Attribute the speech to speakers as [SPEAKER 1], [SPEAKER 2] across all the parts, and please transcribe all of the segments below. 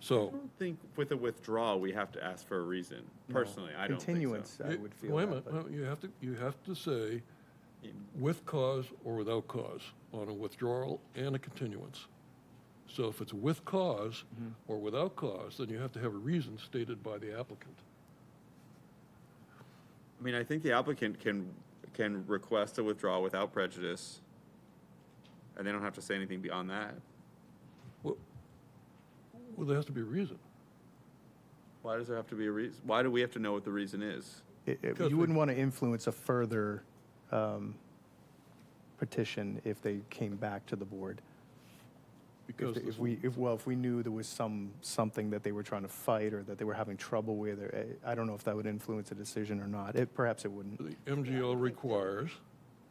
[SPEAKER 1] So,
[SPEAKER 2] I don't think with a withdrawal, we have to ask for a reason. Personally, I don't think so.
[SPEAKER 3] Continuance, I
[SPEAKER 1] you-
[SPEAKER 3] would feel.
[SPEAKER 1] wait a
[SPEAKER 3] that,
[SPEAKER 1] minute,
[SPEAKER 3] but-
[SPEAKER 1] no, you have to, you have to say with cause or without cause on a withdrawal and a continuance. So if it's with cause
[SPEAKER 3] Mm-hmm.
[SPEAKER 1] or without cause, then you have to have a reason stated by the applicant.
[SPEAKER 2] I mean, I think the applicant can, can request a withdrawal without prejudice. And they don't have to say anything beyond that.
[SPEAKER 1] Well, well, there has to be a reason.
[SPEAKER 2] Why does there have to be a reason? Why do we have to know what the reason is?
[SPEAKER 3] It- it-
[SPEAKER 1] Because
[SPEAKER 3] You
[SPEAKER 1] we-
[SPEAKER 3] wouldn't want to influence a further um, petition if they came back to the board. If
[SPEAKER 1] Because
[SPEAKER 3] they-
[SPEAKER 1] this-
[SPEAKER 3] if we, if, well, if we knew there was some, something that they were trying to fight or that they were having trouble with, or, eh, I don't know if that would influence a decision or not. It, perhaps it wouldn't.
[SPEAKER 1] the MGL requires,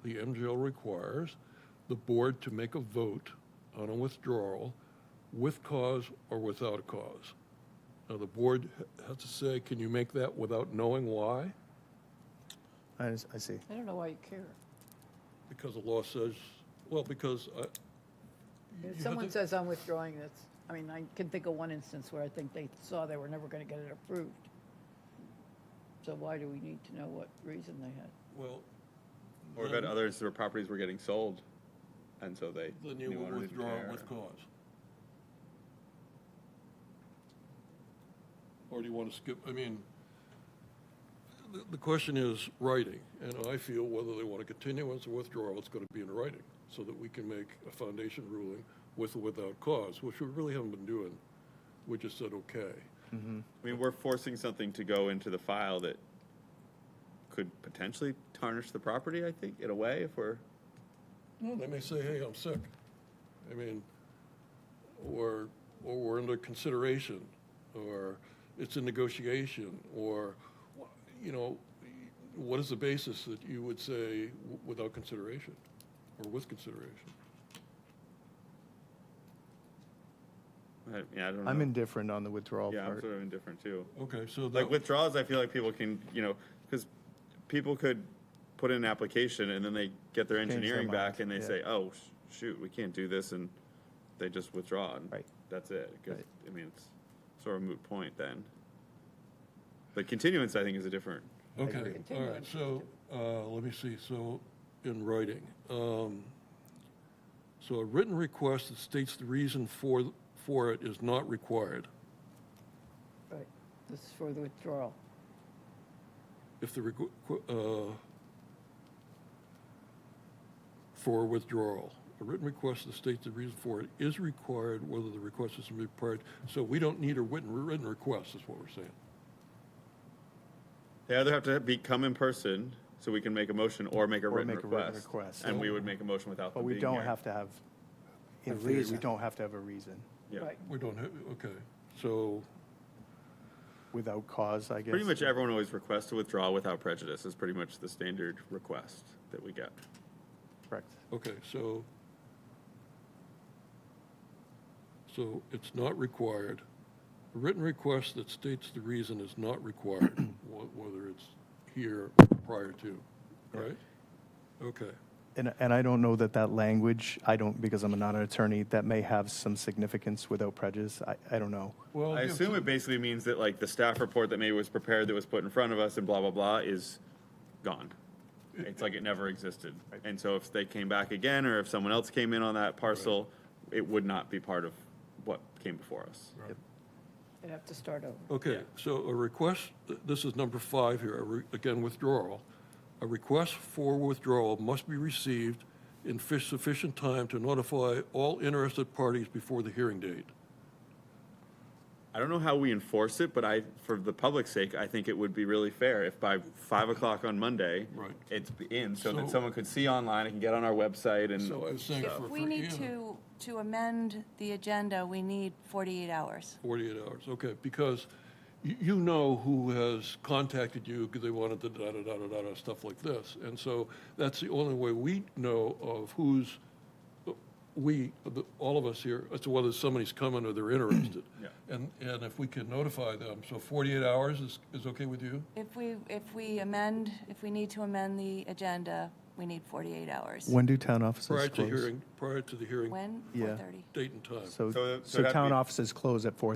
[SPEAKER 1] the MGL requires the board to make a vote on a withdrawal with cause or without a cause. Now, the board ha- has to say, can you make that without knowing why?
[SPEAKER 3] I, s- I see.
[SPEAKER 4] I don't know why you care.
[SPEAKER 1] Because the law says, well, because I. you have
[SPEAKER 4] If someone
[SPEAKER 1] to-
[SPEAKER 4] says I'm withdrawing this, I mean, I can think of one instance where I think they saw they were never gonna get it approved. So why do we need to know what reason they had?
[SPEAKER 1] Well,
[SPEAKER 2] Or we've had
[SPEAKER 1] Mm-hmm.
[SPEAKER 2] others where properties were getting sold, and so they.
[SPEAKER 1] then you
[SPEAKER 2] knew
[SPEAKER 1] will
[SPEAKER 2] owner didn't
[SPEAKER 1] withdraw
[SPEAKER 2] care.
[SPEAKER 1] with cause. Or do you want to skip, I mean, the, the question is writing, and I feel whether they want a continuance or withdrawal, it's going to be in writing, so that we can make a foundation ruling with or without cause, which we really haven't been doing. We just said, okay.
[SPEAKER 2] I mean, we're forcing something to go into the file that could potentially tarnish the property, I think, in a way, if we're,
[SPEAKER 1] Well, They may say, hey, I'm sick. I mean, or, or we're under consideration, or it's a negotiation, or, you know, what is the basis that you would say w- without consideration, or with consideration?
[SPEAKER 2] I, yeah, I don't know.
[SPEAKER 3] I'm indifferent on the withdrawal
[SPEAKER 2] Yeah, I'm
[SPEAKER 3] part.
[SPEAKER 2] sort of indifferent too.
[SPEAKER 1] Okay, so
[SPEAKER 2] Like
[SPEAKER 1] that,
[SPEAKER 2] withdrawals, I feel like people can, you know, because people could put in an application and then they get their
[SPEAKER 3] Change their
[SPEAKER 2] engineering back and
[SPEAKER 3] mind,
[SPEAKER 2] they say,
[SPEAKER 3] yeah.
[SPEAKER 2] oh, sh- shoot, we can't do this, and they just withdraw. and
[SPEAKER 3] Right.
[SPEAKER 2] That's it. 'cause,
[SPEAKER 3] Right.
[SPEAKER 2] I mean, it's sort of a moot point then. But continuance, I think, is a different.
[SPEAKER 1] okay, all
[SPEAKER 4] Continue.
[SPEAKER 1] right, so, uh, let me see, so, in writing. um, So a written request that states the reason for, for it is not required.
[SPEAKER 4] Right, this is for the withdrawal.
[SPEAKER 1] if the, requ- qu- uh, for withdrawal. A written request to state the reason for it is required, whether the request is required. So we don't need a written, written request, is what we're saying.
[SPEAKER 2] They either have to be, come in person so we can make a motion or make a
[SPEAKER 3] Or
[SPEAKER 2] written
[SPEAKER 3] make a written
[SPEAKER 2] request.
[SPEAKER 3] request.
[SPEAKER 2] And we would make a motion without
[SPEAKER 3] But
[SPEAKER 2] them
[SPEAKER 3] we
[SPEAKER 2] being
[SPEAKER 3] don't
[SPEAKER 2] here.
[SPEAKER 3] have to have,
[SPEAKER 1] A
[SPEAKER 3] in theory, we
[SPEAKER 1] reason.
[SPEAKER 3] don't have to have a reason.
[SPEAKER 2] Yeah.
[SPEAKER 4] Right,
[SPEAKER 1] We don't have, okay, so,
[SPEAKER 3] Without cause, I guess.
[SPEAKER 2] Pretty much everyone always requests to withdraw without prejudice is pretty much the standard request that we get.
[SPEAKER 3] Correct.
[SPEAKER 1] okay, so, so it's not required. A written request that states the reason is not required, wh- whether it's here or prior to, right? Okay.
[SPEAKER 3] And, and I don't know that that language, I don't, because I'm not an attorney, that may have some significance without prejudice. I, I don't know.
[SPEAKER 1] Well,
[SPEAKER 2] I
[SPEAKER 1] yeah,
[SPEAKER 2] assume it basically means that like the staff report that maybe was prepared that was put in front of us and blah, blah, blah is gone. It's like it never existed. And so if they came back again, or if someone else came in on that parcel, it would not be part of what came before us.
[SPEAKER 4] I'd have to start over.
[SPEAKER 1] Okay, so a request, th- this is number five here, a re- again, withdrawal. A request for withdrawal must be received in fi- sufficient time to notify all interested parties before the hearing date.
[SPEAKER 2] I don't know how we enforce it, but I, for the public's sake, I think it would be really fair if by five o'clock on Monday,
[SPEAKER 1] Right.
[SPEAKER 2] it's in, so
[SPEAKER 1] So-
[SPEAKER 2] that someone could see online, it can get on our website
[SPEAKER 1] So I
[SPEAKER 2] and,
[SPEAKER 1] was saying for.
[SPEAKER 5] If we
[SPEAKER 1] for
[SPEAKER 5] need
[SPEAKER 1] Ian,
[SPEAKER 5] to, to amend the agenda, we need 48 hours.
[SPEAKER 1] 48 hours, okay, because you, you know who has contacted you because they wanted the da-da-da-da-da, stuff like this. And so that's the only way we know of who's, we, the- all of us here, as to whether somebody's coming or they're interested.
[SPEAKER 2] Yeah.
[SPEAKER 1] And, and if we can notify them, so 48 hours is, is okay with you?
[SPEAKER 5] If we, if we amend, if we need to amend the agenda, we need 48 hours.
[SPEAKER 3] When do town offices close?
[SPEAKER 1] Prior to hearing, prior to the hearing,
[SPEAKER 5] When?
[SPEAKER 3] Yeah.
[SPEAKER 1] Time.
[SPEAKER 5] 4:30.
[SPEAKER 2] So-
[SPEAKER 3] So,
[SPEAKER 2] so
[SPEAKER 3] so
[SPEAKER 2] that'd
[SPEAKER 3] town
[SPEAKER 2] be-
[SPEAKER 3] offices close at four